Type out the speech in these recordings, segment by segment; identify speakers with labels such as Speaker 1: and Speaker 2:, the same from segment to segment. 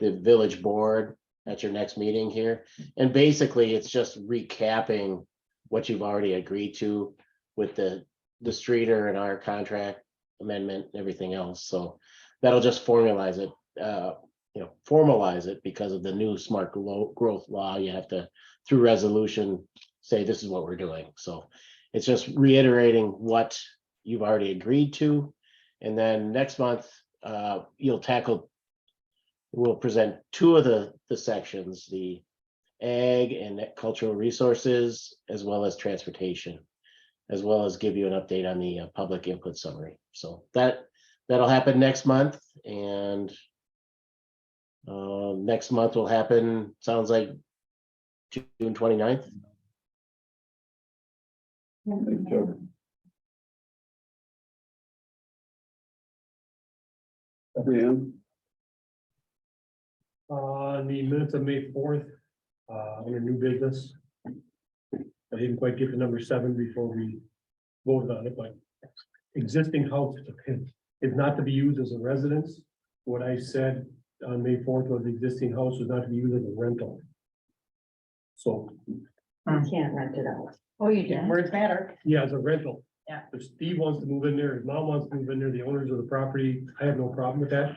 Speaker 1: the village board at your next meeting here. And basically, it's just recapping what you've already agreed to with the, the streeter and our contract amendment, and everything else. So that'll just formalize it, uh, you know, formalize it because of the new smart glo- growth law. You have to, through resolution, say this is what we're doing. So it's just reiterating what you've already agreed to. And then next month, uh, you'll tackle we'll present two of the, the sections, the ag and cultural resources, as well as transportation, as well as give you an update on the uh, public input summary. So that, that'll happen next month and uh, next month will happen, sounds like June 29th.
Speaker 2: Dan,
Speaker 3: Uh, on the minutes of May fourth, uh, under new business. I didn't quite get to number seven before we voted on it, but existing house is not to be used as a residence. What I said on May fourth was the existing house was not to be used as a rental. So,
Speaker 4: You can't rent it out.
Speaker 5: Oh, you did.
Speaker 4: Words matter.
Speaker 3: yeah, as a rental.
Speaker 4: Yeah.
Speaker 3: If Steve wants to move in there, his mom wants to move in there, the owners of the property, I have no problem with that.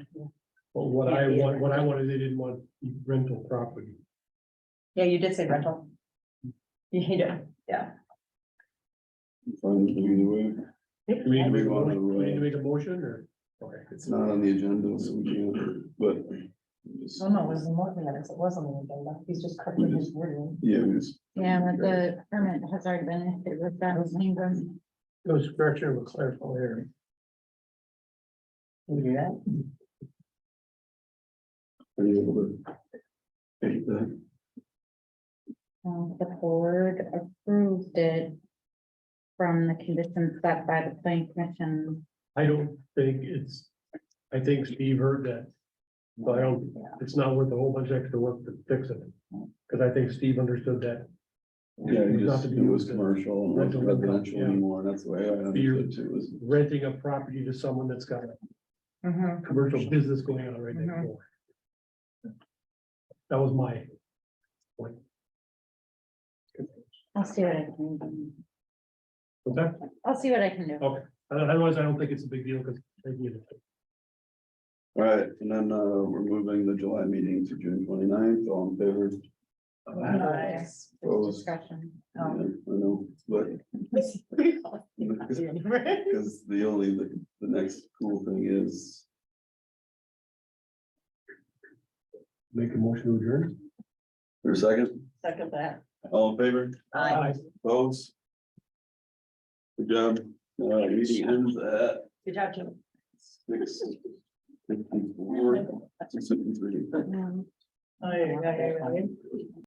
Speaker 3: But what I want, what I wanted, they didn't want rental property.
Speaker 4: Yeah, you did say rental. You did.
Speaker 2: fine either way.
Speaker 3: Do we need to make
Speaker 2: We
Speaker 3: a
Speaker 2: wanna,
Speaker 3: motion? Do we need to
Speaker 2: uh,
Speaker 3: make a motion or? Okay.
Speaker 2: It's not on the agenda, so we can't, but. just-
Speaker 4: Oh, no, it was more than that. It wasn't on the agenda. He's just correcting his wording.
Speaker 2: Yeah, we just.
Speaker 5: Yeah, but the permit has already been, it was that was Ingram.
Speaker 3: It was correction of a clerical error.
Speaker 4: Can we do that?
Speaker 2: Are you able to? Take that,
Speaker 5: Um, The board approved it from the conditions set by the planning commission.
Speaker 3: I don't think it's, I think Steve heard that. But I don't, it's not worth a whole bunch of extra work to fix it. Cause I think Steve understood that.
Speaker 2: yeah, it
Speaker 3: It's not
Speaker 2: just,
Speaker 3: to
Speaker 2: it
Speaker 3: be
Speaker 2: was
Speaker 3: used as
Speaker 2: commercial, and
Speaker 3: rental,
Speaker 2: not residential
Speaker 3: yeah.
Speaker 2: anymore, and that's the way I understood it too, is.
Speaker 3: Renting a property to someone that's got a
Speaker 4: Mm-hmm.
Speaker 3: commercial business going on right next
Speaker 4: Mhm.
Speaker 3: door. That was my,
Speaker 5: I'll see what I can, do.
Speaker 3: okay,
Speaker 5: I'll see what I can do.
Speaker 3: otherwise I don't think it's a big deal, cause they did it.
Speaker 2: All right, and then, uh, we're moving the July meeting to June 29th. all in favor?
Speaker 5: Oh.
Speaker 2: Uh,
Speaker 4: Nice.
Speaker 5: There's discussion.
Speaker 2: yeah, I know, but Because the only, the, the next cool thing is,
Speaker 3: Make a motion to adjourn.
Speaker 2: for a second,
Speaker 4: Second that.
Speaker 2: all in favor,
Speaker 4: Aye.
Speaker 2: opposed? Good job, uh, meeting ends at
Speaker 4: Good job, Jim.
Speaker 2: six fifty-four, six fifty-three.
Speaker 5: Um,
Speaker 4: Aye, aye, aye, aye.